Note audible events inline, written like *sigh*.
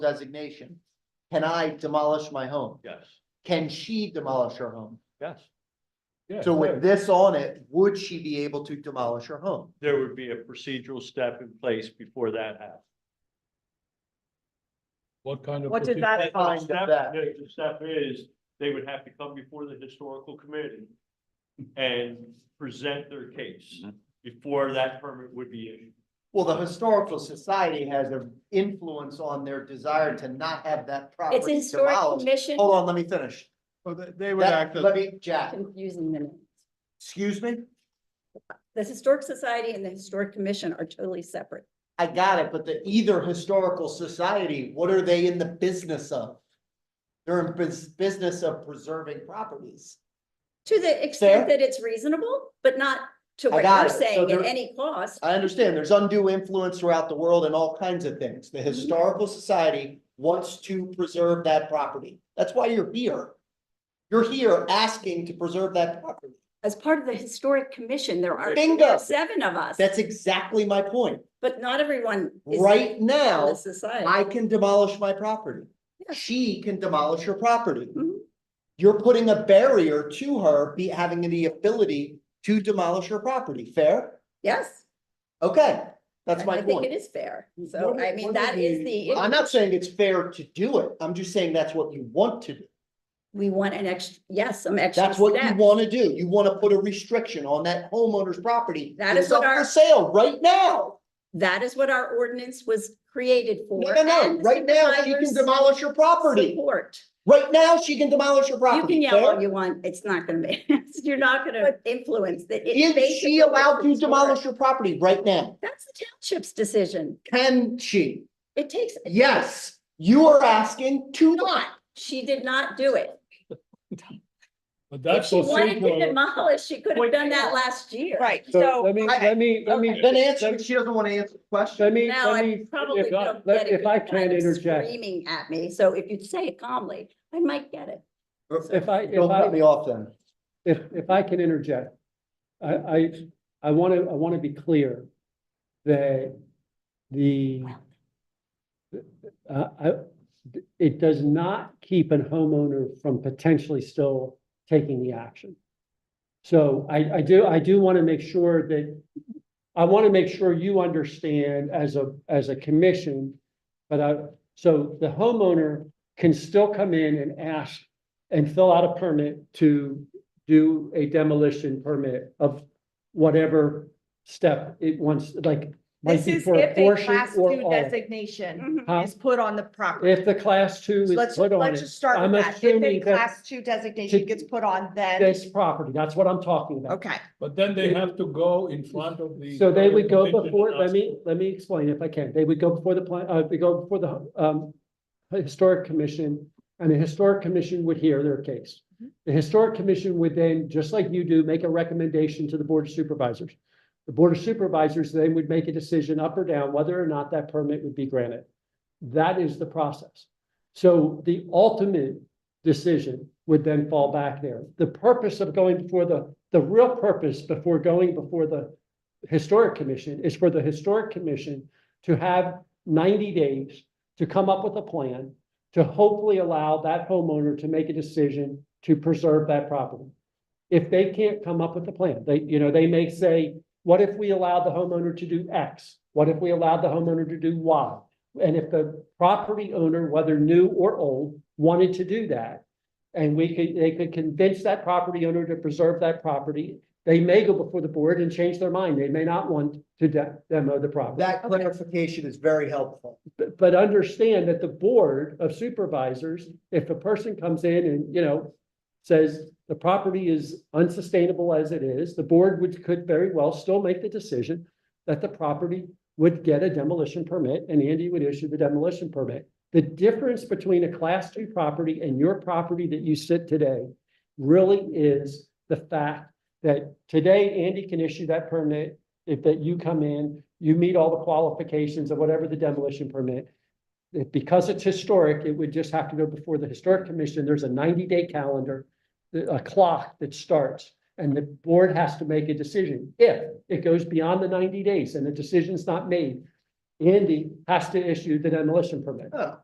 designation. Can I demolish my home? Yes, Can she demolish her home? yes. Yeah, So right. with this on it, would she be able to demolish her home? There would be a procedural step in place before that happens. What kind of? What did proce- that- And the fine, step- that- The the step is, they would have to come before the historical committee and present their case before that permit would be issued. Well, the historical society has an influence on their desire to not have that It's a property historic demolished. commission. Hold on, let me finish. Well, they- they would That, act let as, me, Jack, Confusing them. excuse me? The Historic Society and the Historic Commission are totally separate. I got it, but the either historical society, what are they in the business of? They're in bus- business of preserving properties. To the Fair. extent that it's reasonable, but not to I what got it. you're So saying there- at any cost. I understand there's undue influence throughout the world and all kinds of things. The historical society wants to preserve that property. That's why you're here. You're here asking to preserve that property. As part of the Historic Commission, there are Bingo. there are seven of us, That's exactly my point. but not everyone is Right in the now, society. I can demolish my property. Yeah. She can demolish her property. Mhm. You're putting a barrier to her be having the ability to demolish her property. Fair? Yes, Okay, that's I my think point. it is fair. So What are- I what mean, are that is the, I'm not saying it's fair to do it. I'm just saying that's what you want to do. we want an extra, yes, some extra That's what you steps. want to do. You want to put a restriction on that homeowner's property. That It's is what up For our- sale right now. That is what our ordinance was created for. No, no, no. and the Right now, she can supervisors demolish your property. Support. Right now, she can demolish your You property. can yell all Fair? you want, *laughs* it's not gonna make, you're not gonna influence that. It's Is basically she allowed what to it's for. demolish your property right now? That's the township's decision. Can she? It takes, Yes, you are asking to not. not, she did not do it. But If that's she wanted to procedural. demolish, she could have done that last year. Right, So so, let me, I- let me, let me. Then answer, let- she doesn't want to answer the question. Let me, Now, let me, I probably if I, don't let- get it. if I because you're can kind of interject, Screaming at me, so if you'd say it calmly, I might get it. if I, if Don't cut me I, off then. if, if I can interject. I, I, I want to, I want to be clear that the uh, I, it does not keep a homeowner from potentially still taking the action. So I, I do, I do want to make sure that, I want to make sure you understand as a, as a commission. But I, so the homeowner can still come in and ask and fill out a permit to do a demolition permit of whatever step it wants, like. might this be is for if a portion class or two all. designation Mhm. Huh? is put on the property. Uh-huh. If the class two So is Let's, put on let's it, just start I'm with that. If a assuming that- class two designation gets put on, then, this property, that's what I'm talking about. okay. But then they have to go in front of the. So they would go Commission before, and let ask me, let me explain if I can. They would go before the plan, uh, they go before the, um, historic commission. And the historic commission would hear their case. The historic commission would then, just like you do, make a recommendation to the board of supervisors. The board of supervisors then would make a decision up or down whether or not that permit would be granted. That is the process. So the ultimate decision would then fall back there. The purpose of going before the, the real purpose before going before the historic commission is for the historic commission to have ninety days to come up with a plan to hopefully allow that homeowner to make a decision to preserve that property. If they can't come up with a plan, they, you know, they may say, what if we allow the homeowner to do X? What if we allow the homeowner to do Y? And if the property owner, whether new or old, wanted to do that, and we could, they could convince that property owner to preserve that property, they may go before the board and change their mind. They may not want to de- demo the property. That clarification is very helpful. But, but understand that the board of supervisors, if a person comes in and, you know, says the property is unsustainable as it is, the board would, could very well still make the decision that the property would get a demolition permit and Andy would issue the demolition permit. The difference between a class two property and your property that you sit today really is the fact that today Andy can issue that permit if that you come in, you meet all the qualifications of whatever the demolition permit. If- because it's historic, it would just have to go before the historic commission. There's a ninety day calendar, the- a clock that starts. And the board has to make a decision. If it goes beyond the ninety days and the decision's not made, Andy has to issue the demolition permit. Oh.